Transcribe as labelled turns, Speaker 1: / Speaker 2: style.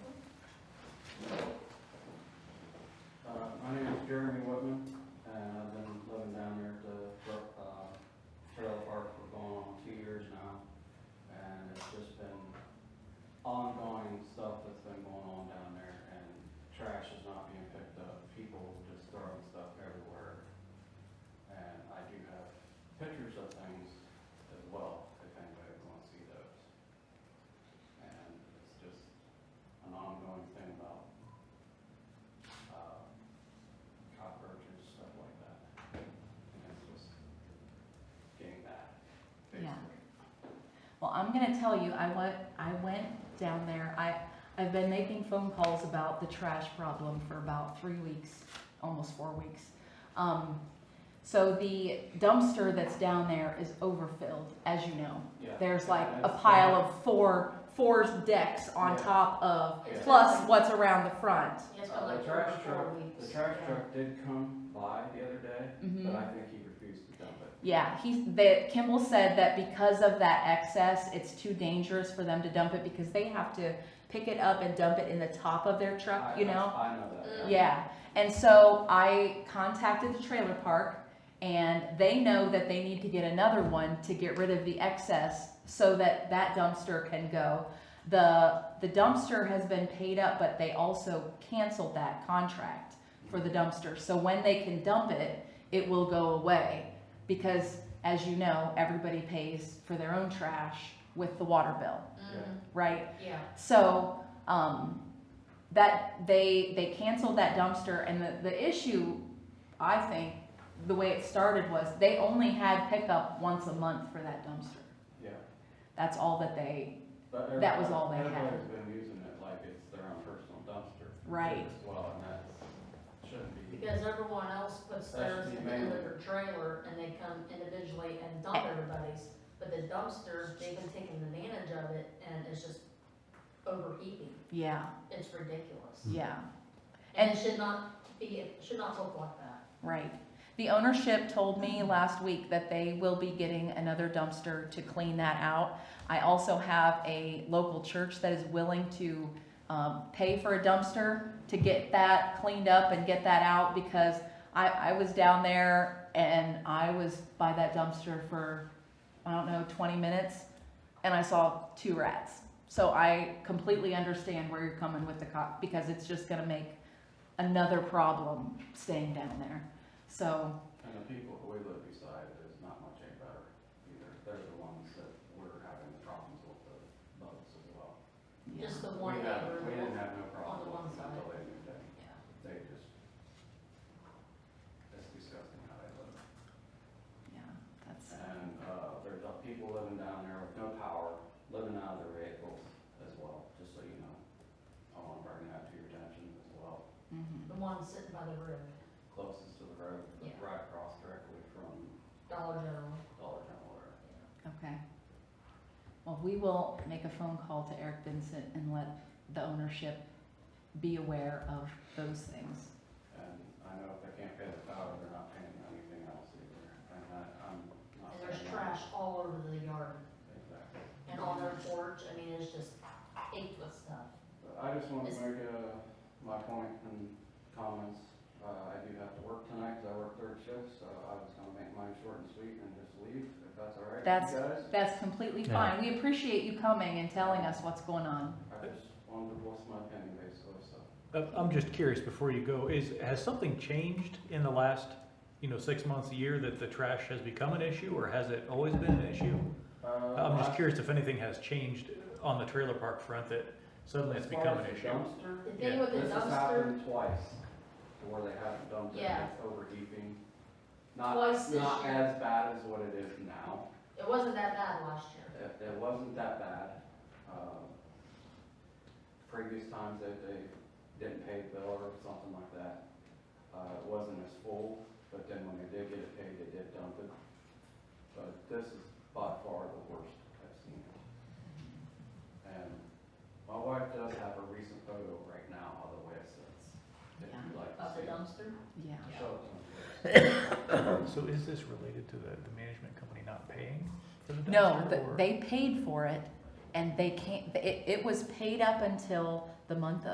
Speaker 1: Uh, uh, uh,
Speaker 2: I'm gonna tell you, I went, I went down there, I, I've been making phone calls about the trash problem for about three weeks, almost four weeks. Um, so the dumpster that's down there is overfilled, as you know.
Speaker 1: Yeah.
Speaker 2: There's like a
Speaker 1: That's-
Speaker 2: pile of four, four decks on
Speaker 1: Yeah.
Speaker 2: top of,
Speaker 1: Yeah.
Speaker 2: plus what's around the front.
Speaker 3: Yes, but
Speaker 1: Uh,
Speaker 3: like
Speaker 1: The
Speaker 3: three or
Speaker 1: trash
Speaker 3: four
Speaker 1: truck,
Speaker 3: weeks.
Speaker 1: the trash
Speaker 3: yeah.
Speaker 1: truck did come by the other day, but
Speaker 2: Mhm.
Speaker 1: I think he refused to dump it.
Speaker 2: Yeah, he, that Kimball said that because of that excess, it's too dangerous for them to dump it because they have to pick it up and dump it in the top of their truck,
Speaker 1: I-
Speaker 2: you
Speaker 1: I-
Speaker 2: know?
Speaker 1: I know that.
Speaker 3: Mm.
Speaker 2: Yeah, and so I contacted the trailer park and they know that they need to get another one to get rid of the excess so that that dumpster can go. The, the dumpster has been paid up, but they also canceled that contract for the dumpster. So when they can dump it, it will go away. Because as you know, everybody pays for their own trash with the water bill,
Speaker 3: Mhm,
Speaker 2: right?
Speaker 3: Yeah.
Speaker 2: So, um, that, they, they canceled that dumpster and the, the issue, I think, the way it started was they only had pickup once a month for that dumpster.
Speaker 1: Yeah.
Speaker 2: That's all that they,
Speaker 1: But
Speaker 2: That was all they
Speaker 1: everybody-
Speaker 2: had.
Speaker 1: Everybody's been using it like it's their own personal dumpster.
Speaker 2: Right.
Speaker 1: As well, and that shouldn't be.
Speaker 3: Because everyone else puts
Speaker 1: That should
Speaker 3: theirs
Speaker 1: be
Speaker 3: in
Speaker 1: manual.
Speaker 3: their trailer and they come individually and dump everybody's. But the dumpster, they've been taking advantage of it and it's just overheating.
Speaker 2: yeah,
Speaker 3: It's ridiculous.
Speaker 2: yeah,
Speaker 3: And it should not be, it should not look like that.
Speaker 2: right. The ownership told me last week that they will be getting another dumpster to clean that out. I also have a local church that is willing to, um, pay for a dumpster to get that cleaned up and get that out because I, I was down there and I was by that dumpster for, I don't know, 20 minutes and I saw two rats. So I completely understand where you're coming with the cop because it's just going to make another problem staying down there. So,
Speaker 1: And the people who we live beside is not much any better either. They're the ones that we're having problems with the bugs as well.
Speaker 2: yeah.
Speaker 3: Just the
Speaker 1: We
Speaker 3: one
Speaker 1: have, we didn't
Speaker 3: neighbor.
Speaker 1: have no problem
Speaker 3: one
Speaker 1: with them
Speaker 3: side.
Speaker 1: until they moved in.
Speaker 3: Yeah.
Speaker 1: They just, it's disgusting how they live.
Speaker 2: yeah, that's
Speaker 1: And, uh, there's uh, people living down there with no power, living out of their vehicles as well, just so you know. I wanna bring that to your attention as well,
Speaker 2: mhm.
Speaker 3: The one sitting by the road,
Speaker 1: closest to the road,
Speaker 3: Yeah.
Speaker 1: right across directly from
Speaker 3: Dollar General.
Speaker 1: Dollar General there.
Speaker 2: Okay. Well, we will make a phone call to Eric Vincent and let the ownership be aware of those things.
Speaker 1: And I know if they can't pay the power, they're not paying anything else either, and I, I'm not.
Speaker 3: And there's
Speaker 1: saying
Speaker 3: trash
Speaker 1: that-
Speaker 3: all over the yard
Speaker 1: Exactly,
Speaker 3: and on their porch. I mean, it's just ached with stuff.
Speaker 1: but I just wanna
Speaker 3: Is-
Speaker 1: make, uh, my point and comments, uh, I do have to work tonight, cause I work third shift, so I was gonna make mine short and sweet and just leave, if that's all right with
Speaker 2: That's-
Speaker 1: you guys.
Speaker 2: That's completely fine. We appreciate you coming and telling us what's going on.
Speaker 1: I just wanted to voice my opinion basically, so.
Speaker 4: I'm Uh, I'm just curious, before you go, is, has something changed in the last, you know, six months, a year, that the trash has become an issue, or has it always been an issue? I'm
Speaker 1: Uh,
Speaker 4: just curious if anything has changed on the trailer park front that suddenly it's become an issue.
Speaker 3: The thing
Speaker 4: Yeah,
Speaker 3: with the
Speaker 1: This has
Speaker 3: dumpster,
Speaker 1: happened twice, to where they haven't dumped it,
Speaker 3: Yeah.
Speaker 1: and it's overheating. Not,
Speaker 3: Twice this
Speaker 1: not
Speaker 3: year.
Speaker 1: as bad as what it is now,
Speaker 3: it wasn't that bad last year.
Speaker 1: it, it wasn't that bad. Um, Previous times that they didn't pay the bill or something like that, uh, it wasn't as full, but then when they did get it paid, they did dump it. But this is by far the worst I've seen it. And my wife does have a recent photo right now of the way it sits, if you'd like to
Speaker 3: Of the
Speaker 1: see. it.
Speaker 3: dumpster?
Speaker 2: Yeah.
Speaker 1: Show it to me.
Speaker 4: So is this related to the, the management company not paying for the dumpster?
Speaker 2: No, th-
Speaker 4: or-
Speaker 2: they paid for it and they can't, it, it was paid up until the month of.